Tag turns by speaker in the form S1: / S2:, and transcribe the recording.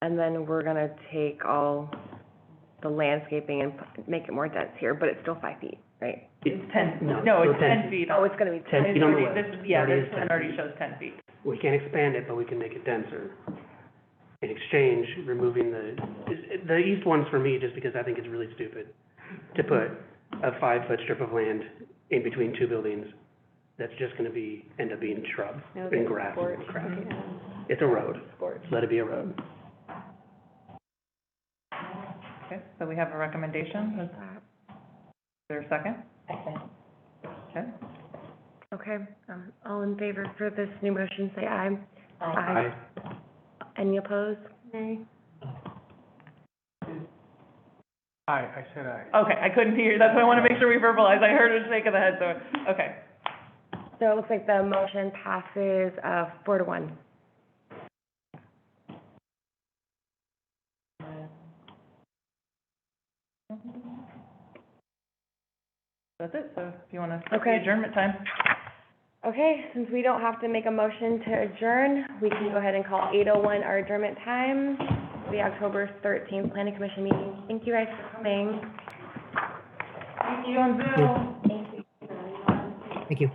S1: And then we're gonna take all the landscaping and p- make it more dense here, but it's still five feet, right?
S2: It's ten,
S3: No,
S2: no,
S3: it's
S2: it's
S3: ten
S2: ten feet.
S1: Oh, it's gonna be.
S3: Ten
S2: It's
S3: feet on the
S2: already-
S3: west.
S2: this- Yeah,
S3: Already
S2: this
S3: is
S2: one
S3: 10
S2: already
S3: feet.
S2: shows ten feet.
S3: We can't expand it, but we can make it denser. In exchange, removing the, the east one's for me, just because I think it's really stupid to put a five-foot strip of land in between two buildings that's just gonna be, end up being shrub and grass and crap.
S1: Mm-hmm.
S3: It's a road. Let it be a road.
S2: Okay, so we have a recommendation. Is there a second? Okay,
S1: Okay, um, all in favor for this new motion, say aye. Aye. Any opposed? Nay.
S4: Aye, I said aye.
S2: okay, I couldn't hear, that's why I want to make sure we verbalize. I heard a shake of the head, so, okay.
S1: So it looks like the motion passes, uh, four to one.
S2: That's it, so if you want to,
S1: Okay.
S2: adjournment time.
S1: Okay, since we don't have to make a motion to adjourn, we can go ahead and call eight oh one our adjournment time, the October thirteenth planning commission meeting. Thank you guys for coming.
S2: Thank you on Zoom.
S1: Thank you.